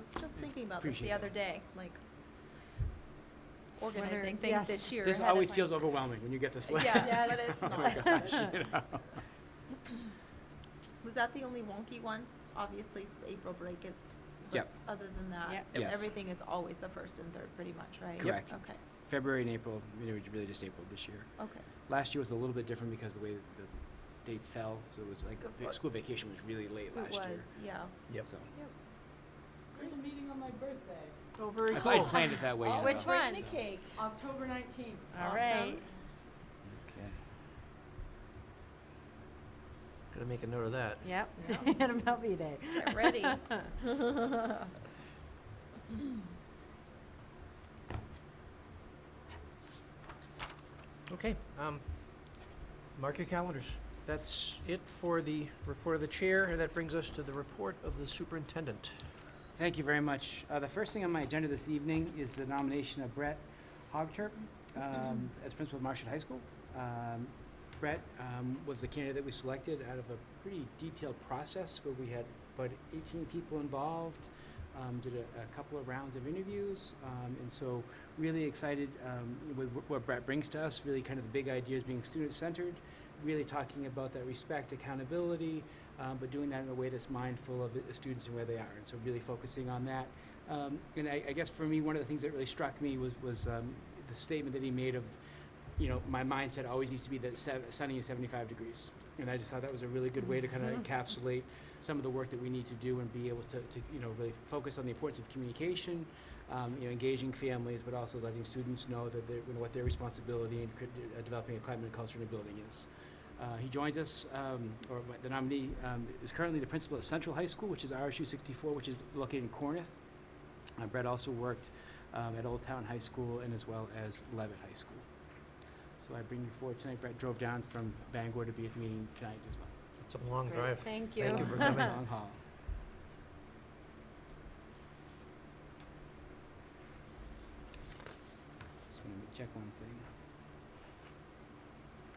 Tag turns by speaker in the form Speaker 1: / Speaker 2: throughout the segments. Speaker 1: was just thinking about this
Speaker 2: Appreciate
Speaker 1: the other
Speaker 2: that.
Speaker 1: day, like
Speaker 3: Wonder-
Speaker 1: organizing things
Speaker 3: yes.
Speaker 1: this year.
Speaker 2: This
Speaker 1: ahead of
Speaker 2: always
Speaker 1: time.
Speaker 2: feels overwhelming when you get this letter.
Speaker 1: Yeah, but it's
Speaker 2: Oh my
Speaker 1: not.
Speaker 2: gosh, you know.
Speaker 1: Was that the only wonky one? Obviously, April break is, but
Speaker 2: Yep.
Speaker 1: other than that,
Speaker 3: Yep.
Speaker 2: Yes.
Speaker 1: everything is always the first and third, pretty much, right?
Speaker 2: Correct.
Speaker 1: Okay,
Speaker 2: February and April, you know, really just April this year.
Speaker 1: okay.
Speaker 2: Last year was a little bit different because the way that the dates fell, so it was like,
Speaker 1: Good
Speaker 2: the
Speaker 1: point.
Speaker 2: school vacation was really late
Speaker 1: It
Speaker 2: last year.
Speaker 1: was, yeah.
Speaker 2: Yep. So,
Speaker 4: There's a meeting on my birthday,
Speaker 2: I thought I planned it that way.
Speaker 1: Oh,
Speaker 2: you
Speaker 1: Which
Speaker 2: know.
Speaker 1: one?
Speaker 2: So-
Speaker 1: The cake.
Speaker 4: October nineteenth.
Speaker 3: All
Speaker 1: Awesome.
Speaker 3: right.
Speaker 5: Okay. Gotta make a note of that.
Speaker 3: Yep. And MLB Day.
Speaker 1: Get ready.
Speaker 5: Okay, um, mark your calendars. That's it for the report of the chair, and that brings us to the report of the superintendent.
Speaker 2: Thank you very much. Uh, the first thing on my agenda this evening is the nomination of Brett Hogturp um, as principal of Marshall High School. Um, Brett um, was the candidate that we selected out of a pretty detailed process where we had about 18 people involved, um, did a, a couple of rounds of interviews, um, and so really excited um, with wh- what Brett brings to us. Really, kind of the big ideas being student centered, really talking about that respect, accountability, um, but doing that in a way that's mindful of the the students and where they are. And so really focusing on that. Um, and I, I guess for me, one of the things that really struck me was, was um, the statement that he made of, you know, my mindset always needs to be that sev- sunny is 75 degrees. And I just thought that was a really good way to kind of encapsulate some of the work that we need to do and be able to, to you know, really focus on the importance of communication, um, you know, engaging families, but also letting students know that they're, you know, what their responsibility in cr- uh, developing a climate and culture in a building is. Uh, he joins us, um, or what- the nominee um, is currently the principal at Central High School, which is RSU 64, which is located in Cornith. Uh, Brett also worked um, at Old Town High School and as well as Levitt High School. So I bring you forward tonight. Brett drove down from Bangor to be at the meeting tonight as well.
Speaker 5: It's a long
Speaker 3: Great,
Speaker 5: drive.
Speaker 3: Thank you.
Speaker 5: Thank you for
Speaker 2: Long
Speaker 5: coming.
Speaker 2: haul. Just want to check one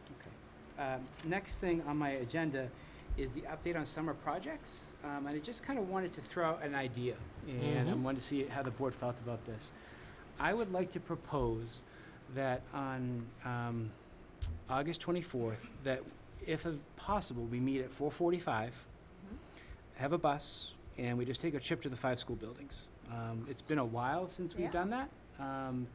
Speaker 2: thing. Okay. Um, Next thing on my agenda is the update on summer projects. Um, And I just kind of wanted to throw out an idea, and I
Speaker 5: Mhm.
Speaker 2: wanted to see how the board felt about this. I would like to propose that on um, August 24th, that if of- possible, we meet at 4:45, have a bus, and we just take a trip to the five school buildings. Um, It's been a while since we've
Speaker 1: Yeah.
Speaker 2: done that. Um,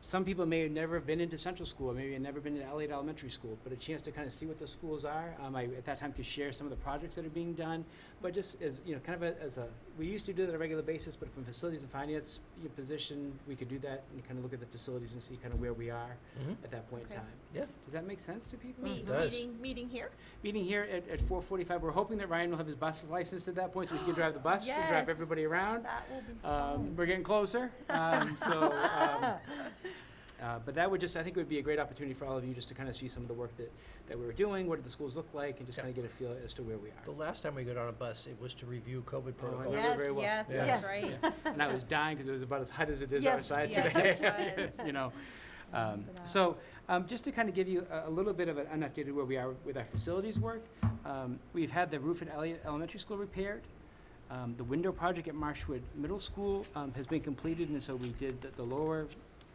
Speaker 2: Some people may have never been into Central School, or maybe have never been to Elliott Elementary School, but a chance to kind of see what those schools are. Um, I, at that time, could share some of the projects that are being done, but just as, you know, kind of a- as a, we used to do that on a regular basis, but from facilities and finance you know, position, we could do that and kind of look at the facilities and see kind of where we are
Speaker 5: Mhm.
Speaker 2: at that point in
Speaker 1: Okay.
Speaker 2: time.
Speaker 5: Yeah.
Speaker 2: Does that make sense to people? Uh-huh.
Speaker 1: Me,
Speaker 5: does.
Speaker 1: meeting, meeting here?
Speaker 2: Meeting here at, at four forty-five, we're hoping that Ryan will have his bus license at that point, so we can drive the bus and drive everybody
Speaker 1: Yes,
Speaker 2: around.
Speaker 1: That will be
Speaker 2: Um,
Speaker 1: fun.
Speaker 2: we're getting closer, um, so, um, uh, but that would just, I think it would be a great opportunity for all of you just to kind of see some of the work that, that we were doing, what did the schools look like, and just
Speaker 5: Yeah.
Speaker 2: kind of get a feel as to where we
Speaker 5: The
Speaker 2: are.
Speaker 5: last time we got on a bus, it was to review COVID
Speaker 2: Oh, I
Speaker 5: protocols.
Speaker 2: remember very well.
Speaker 1: Yes,
Speaker 5: Yeah.
Speaker 1: that's
Speaker 3: Yes.
Speaker 1: right.
Speaker 2: And I was dying because it was about as hot as it is
Speaker 1: Yes,
Speaker 2: outside
Speaker 1: yes,
Speaker 2: today.
Speaker 1: it was.
Speaker 2: You know, um,
Speaker 1: Remember that.
Speaker 2: so, um, just to kind of give you a, a little bit of an an update of where we are with our facilities work, um, we've had the roof at Elliott Elementary School repaired. Um, the window project at Marshwood Middle School, um, has been completed, and so we did the, the lower,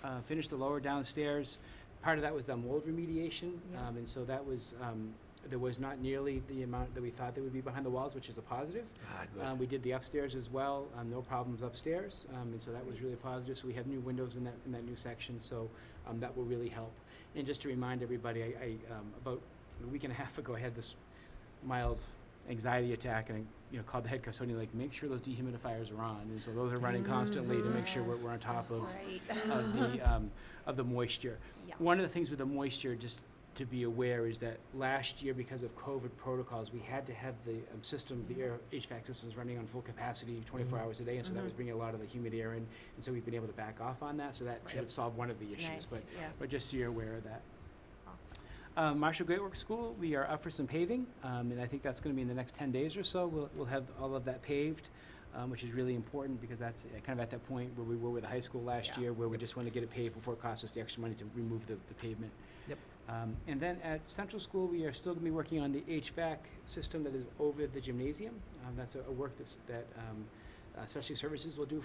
Speaker 2: uh, finished the lower downstairs. Part of that was the mold remediation,
Speaker 1: Yeah.
Speaker 2: um, and so that was, um, there was not nearly the amount that we thought there would be behind the walls, which is a positive.
Speaker 5: Ah, good.
Speaker 2: Um, we did the upstairs as well, um, no problems upstairs, um, and so that was really positive. So we have new windows in that, in that new section, so, um, that will really help. And just to remind everybody, I, I, um, about a week and a half ago, I had this mild anxiety attack and, I, you know, called the head custodian, like, make sure those dehumidifiers are on. And so those are running constantly to make sure we're, we're on top
Speaker 1: That's
Speaker 2: of,
Speaker 1: right.
Speaker 2: of the, um, of the moisture.
Speaker 1: Yeah.
Speaker 2: One of the things with the moisture, just to be aware, is that last year, because of COVID protocols, we had to have the um, systems, the air HVAC systems running on full capacity twenty-four
Speaker 5: Mhm.
Speaker 2: hours a day, and so that was
Speaker 3: Mhm.
Speaker 2: bringing a lot of the humid air in, and so we've been able to back off on that, so that should have solved one of the issues,
Speaker 3: Nice,
Speaker 2: but,
Speaker 3: yeah.
Speaker 2: but just so you're aware of that.
Speaker 1: Awesome.
Speaker 2: Um, Marshall Great Works School, we are up for some paving, um, and I think that's gonna be in the next ten days or so, we'll, we'll have all of that paved, um, which is really important, because that's uh, kind of at that point where we were with the high school last
Speaker 1: Yeah.
Speaker 2: year, where we just wanna get it paved before it costs us the extra money to remove the, the pavement.
Speaker 5: Yep.
Speaker 2: Um, and then at Central School, we are still gonna be working on the HVAC system that is over the gymnasium, um, that's a, a work that's, that, um, uh, Specialty Services will do